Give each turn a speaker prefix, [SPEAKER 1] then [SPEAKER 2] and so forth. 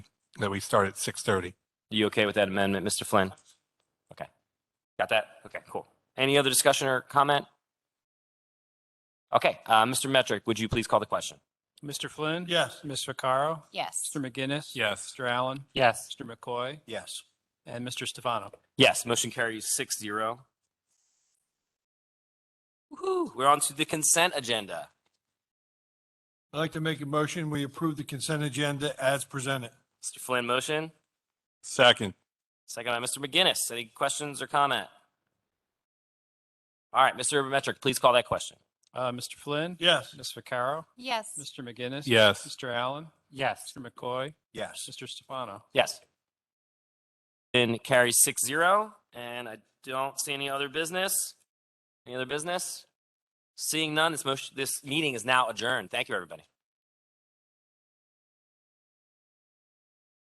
[SPEAKER 1] that we start at 6:30.
[SPEAKER 2] You okay with that amendment, Mr. Flynn? Okay. Got that? Okay, cool. Any other discussion or comment? Okay, uh, Mr. Metric, would you please call the question?
[SPEAKER 3] Mr. Flynn?
[SPEAKER 1] Yes.
[SPEAKER 3] Ms. Vaccaro?
[SPEAKER 4] Yes.
[SPEAKER 3] Mr. McGinnis?
[SPEAKER 1] Yes.
[SPEAKER 3] Mr. Allen?
[SPEAKER 2] Yes.
[SPEAKER 3] Mr. McCoy?
[SPEAKER 1] Yes.
[SPEAKER 3] And Mr. Stefano?
[SPEAKER 2] Yes, motion carries six zero. Woo-hoo, we're on to the consent agenda.
[SPEAKER 5] I'd like to make a motion, we approve the consent agenda as presented.
[SPEAKER 2] Mr. Flynn, motion.
[SPEAKER 1] Second.
[SPEAKER 2] Second by Mr. McGinnis. Any questions or comment? All right, Mr. Metric, please call that question.
[SPEAKER 3] Uh, Mr. Flynn?
[SPEAKER 5] Yes.
[SPEAKER 3] Ms. Vaccaro?
[SPEAKER 4] Yes.
[SPEAKER 3] Mr. McGinnis?
[SPEAKER 1] Yes.
[SPEAKER 3] Mr. Allen?
[SPEAKER 2] Yes.
[SPEAKER 3] Mr. McCoy?
[SPEAKER 5] Yes.
[SPEAKER 3] Mr. Stefano?
[SPEAKER 2] Yes. And carries six zero, and I don't see any other business. Any other business? Seeing none, this motion, this meeting is now adjourned. Thank you, everybody.